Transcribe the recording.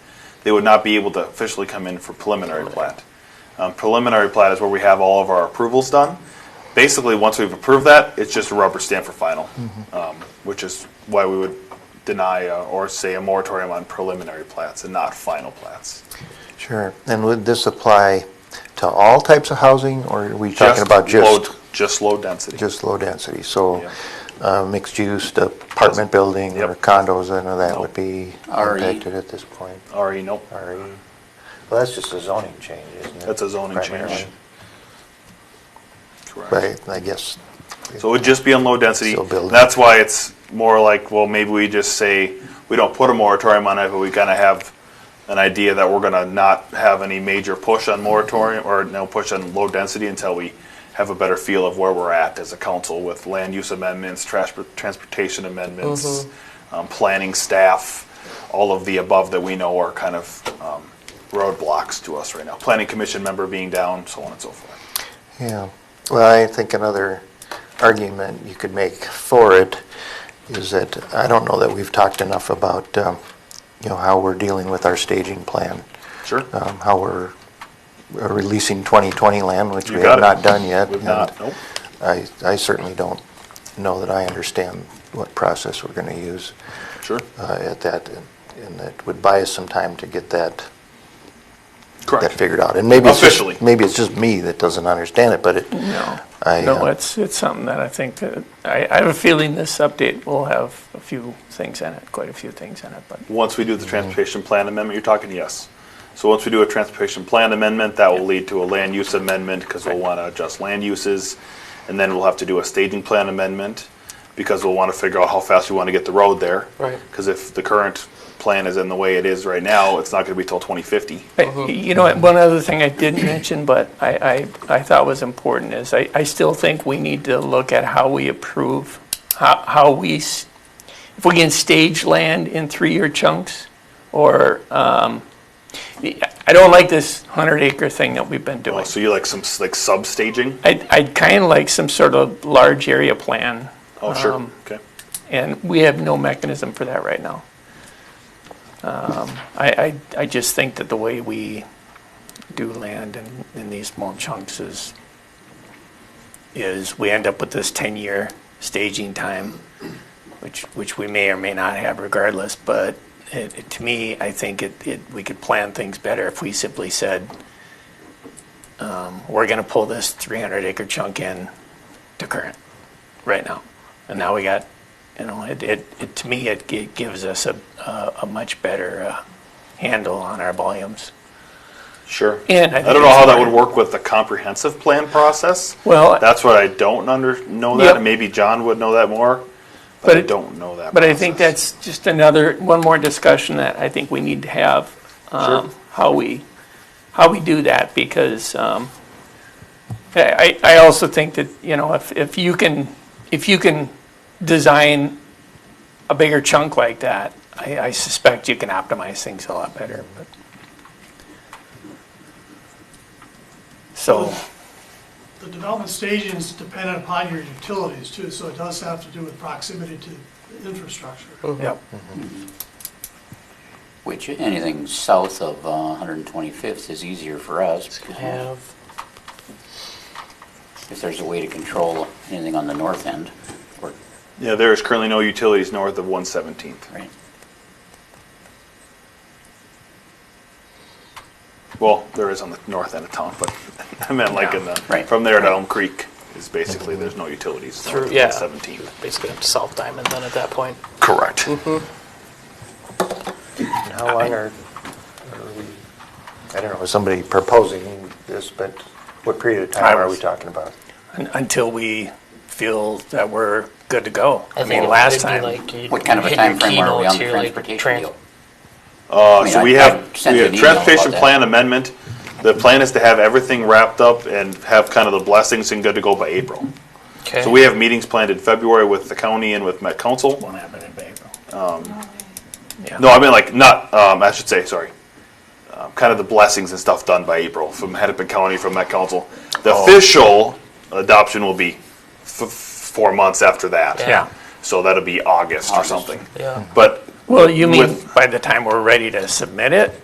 they would not be able to officially come in for preliminary plat. Um, Preliminary plat is where we have all of our approvals done. Basically, once we've approved that, it's just a rubber stamp for final, um, which is why we would deny uh, or say a moratorium on preliminary plats and not final plats. Sure. And would this apply to all types of housing, or are we talking about low- just, Just low density. just low density? So Yeah. uh, mixed-use apartment building or Yep. condos, none of that Nope. would be RE. impacted at this point? RE, nope. RE? E. Well, that's just a zoning change, isn't it? E. That's a zoning change. Primarily. Correct. Right, I guess. So it would just be on low density. Still building. That's why it's more like, well, maybe we just say, we don't put a moratorium on it, but we kind of have an idea that we're going to not have any major push on moratorium, or no push on low density until we have a better feel of where we're at as a council with land use amendments, trash- transportation amendments, Mm-hmm. um, planning staff, all of the above that we know are kind of um, roadblocks to us right now. Planning commission member being down, so on and so forth. Yeah, well, I think another argument you could make for it is that, I don't know that we've talked enough about, um, you know, how we're dealing with our staging plan, Sure. um, how we're uh, releasing 2020 land, which You we got have it. not done yet. We've not, and nope. I, I certainly don't know that I understand what process we're going to use Sure. uh, at that, and- and it would buy us some time to get that that Correct. figured out. And maybe it's just- Officially. Mm-hmm. Maybe it's just me that doesn't understand it, but it, No, I, no, uh, it's, it's something that I think that, I, I have a feeling this update will have a few things in it, quite a few things in it, but Once we do the transportation plan amendment, you're talking yes. So once we do a transportation plan amendment, that will lead to a land use amendment because we'll want to adjust land uses. And then we'll have to do a staging plan amendment because we'll want to figure out how fast we want to get the road there. Right. Because if the current plan is in the way it is right now, it's not going to be till 2050. But You know, what, one other thing I did mention, but I, I, I thought was important is I, I still think we need to look at how we approve, how, how we, s- if we can stage land in three-year chunks or, um, I don't like this hundred acre thing that we've been Oh, doing. So you like some s- like sub staging? I'd, I'd kind of like some sort of large area plan Oh, sure. Um, Okay. and we have no mechanism for that right now. Um, I, I, I just think that the way we do land in, in these small chunks is, is we end up with this 10-year staging time, which, which we may or may not have regardless, but it, it- to me, I think it, it, we could plan things better if we simply said, um, we're gonna pull this 300 acre chunk in to current right now. And now we got, you know, it, it, it to me, it, it gives us a, a, a much better uh, handle on our volumes. Sure. And I I don't think know it's how that would fine. work with the comprehensive plan process. Well, That's what I don't under, know Yep. that, and maybe John would know that more, but But I it- don't know that. but I think process. that's just another, one more discussion that I think we need to have. Um, Sure. how we, how we do that because, um, I, I I also think that, you know, if, if you can, if you can design a bigger chunk like that, I, I suspect you can optimize things a lot better, but. So. The development staging is dependent upon your utilities too, so it does have to do with proximity to the infrastructure. Yep. Which, anything south of uh, 125th is easier for us. because Have. If there's a way to control anything on the north end, or, Yeah, there is currently no utilities north of 117th. right? Well, there is on the north end of town, but I meant like in the, Right. from there to Elm Creek is basically, there's no utilities north Through- of yeah. 117th. Basically up to South Diamond then at that point. Correct. How long are, are we, I don't know, was somebody proposing this, but what period of time are we talking about? Un- Until we feel that we're good to go. I think mean, it last would be time, like you- What kind of a hit your time frame are we on keynotes the here, like transportation trans- deal? Uh, I mean, so I- we Oh, I have, sent we you have an email about transportation that. plan amendment. The plan is to have everything wrapped up and have kind of the blessings and good to go by April. Okay. So we have meetings planned in February with the county and with Met Council. won't happen in April. No, I mean like not. Um, I should say sorry. Um, kind of the blessings and stuff done by April from Hennepin County from that council. The Oh. official adoption will be f- four months after that. Yeah. So that'll be August, or August. something. Yeah. But Well, you mean With- by the time we're ready to submit it?